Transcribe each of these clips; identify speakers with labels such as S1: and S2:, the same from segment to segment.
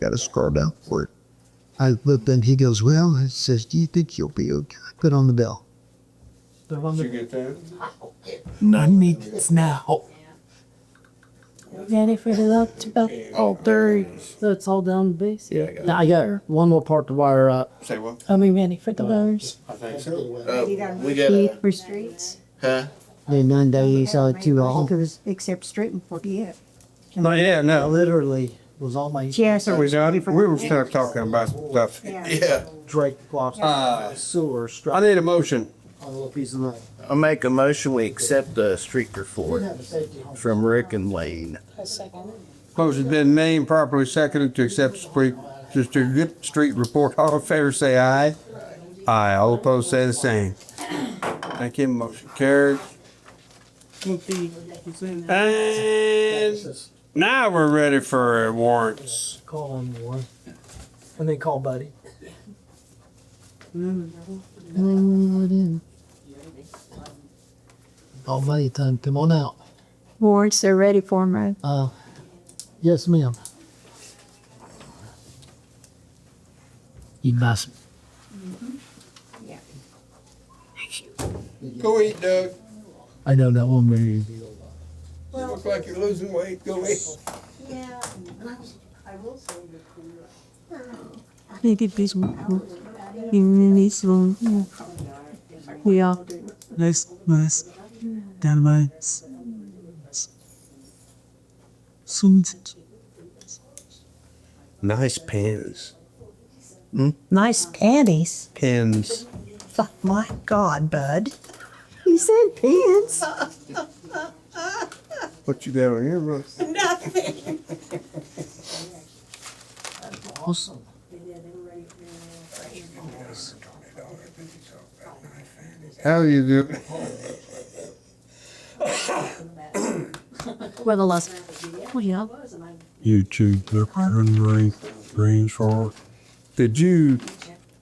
S1: Got to scroll down for it. I looked and he goes, Well, it says, Do you think you'll be okay? Put on the bell.
S2: Did you get that?
S3: None needs now.
S4: Ready for the lock to bell?
S3: Oh, there he is.
S4: So it's all down the base?
S3: Yeah, I got it.
S5: Now I got one more part to wire up.
S2: Say what?
S4: I mean, ready for the wires?
S2: I think so.
S6: Uh, we got
S7: Key
S6: a,
S7: for streets?
S6: huh?
S1: Then none days all too long.
S7: Because except street and forget.
S2: Not yet,
S5: I
S2: no.
S5: literally was on my
S7: Yes,
S2: There
S7: or
S2: we go. We were still talking about stuff.
S6: Yeah.
S5: Drake clock
S2: Uh,
S5: sewer
S2: I
S5: struck
S2: need a motion.
S5: on a little piece of line.
S6: I'll make a motion, we accept the street report from Rick and Lane.
S2: Motion's been made and properly seconded to accept street, just to get street report. All in favor, say aye. Aye. All opposed, say the same. Thank you. Motion carried. And now we're ready for warrants.
S5: Call on one. And then call Buddy.
S1: All money time. Come on out.
S7: warrants are ready for them, right?
S1: Uh, yes, ma'am.
S5: You must.
S2: Go eat, Doug.
S5: I know that one very.
S2: You look like you're losing weight. Go eat.
S7: Yeah. Maybe this one, even this one. Yeah.
S3: Nice, nice. Down my. Soon.
S2: Nice pins.
S8: Nice panties.
S2: Pins.
S8: Oh, my God, bud.
S7: You said pants.
S2: What you down here, Russ?
S5: Awesome.
S2: How you do?
S4: Where the last? Oh, yeah.
S9: YouTube Green Green Short.
S2: Did you?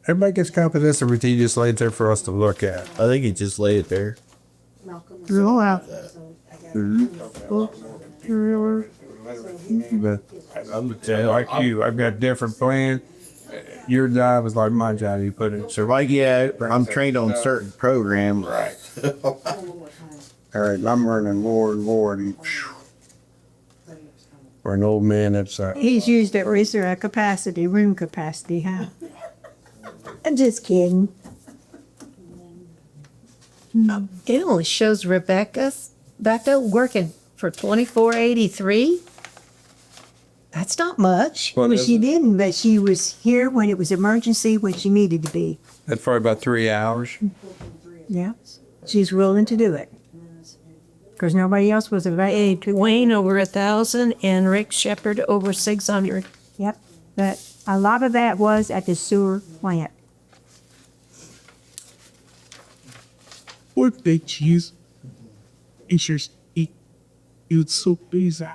S2: Everybody gets copies of this, or did you just lay it there for us to look at?
S6: I think he just laid it there.
S7: Roll out.
S2: But I'm like you, I've got different plans. Your job is like my job. You put it.
S6: So like, yeah, I'm trained on certain programs. Right.
S2: All right, I'm learning more and more. And phew. for an old man, that's uh,
S7: He's used at reserve capacity, room capacity, huh?
S8: I'm just kidding.
S4: It only shows Rebecca's, Becca working for twenty-four eighty-three?
S8: That's not much.
S2: Well,
S7: Well, she didn't, but she was here when it was emergency, when she needed to be.
S2: that's probably about three hours.
S7: Yeah. She's willing to do it. Because nobody else was available to.
S8: Wayne over a thousand and Rick Shepard over six hundred.
S7: Yep. But a lot of that was at the sewer plant.
S3: What they cheese? It's just eat. It's so busy.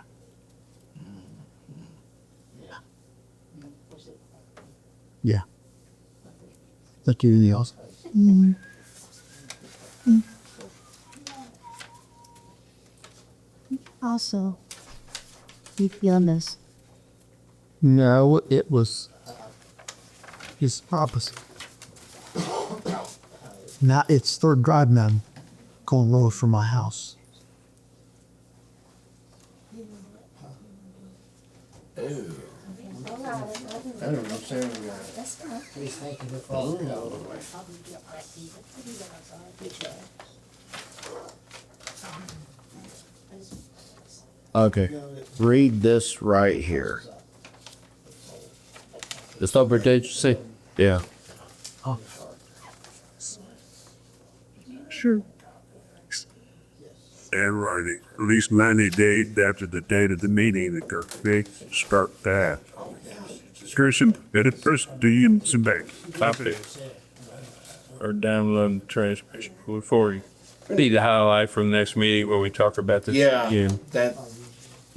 S1: That you the awesome.
S7: Also, you feeling this?
S1: No, it was his opposite. now it's third drive now, going low from my house.
S6: Okay. Read this right here. It's over there, you see? Yeah.
S3: Sure.
S9: And right, at least ninety days after the date of the meeting, the Kirk fix start that. Kirsten, it is first, do you submit? Copy.
S10: or download the transmission before we need to highlight from next meeting where we talk about this.
S6: Yeah,
S10: again.
S6: that,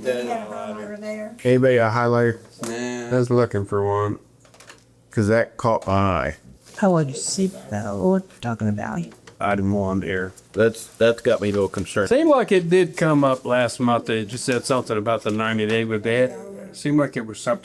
S6: that. Anybody a highlighter?
S2: I was looking for one.
S6: Cause that caught my eye.
S8: I would see that. What you talking about?
S2: I didn't want air.
S6: That's, that's got me a little concerned.
S10: Seemed like it did come up last month. They just said something about the ninety day, but they had,
S2: Seemed like it was something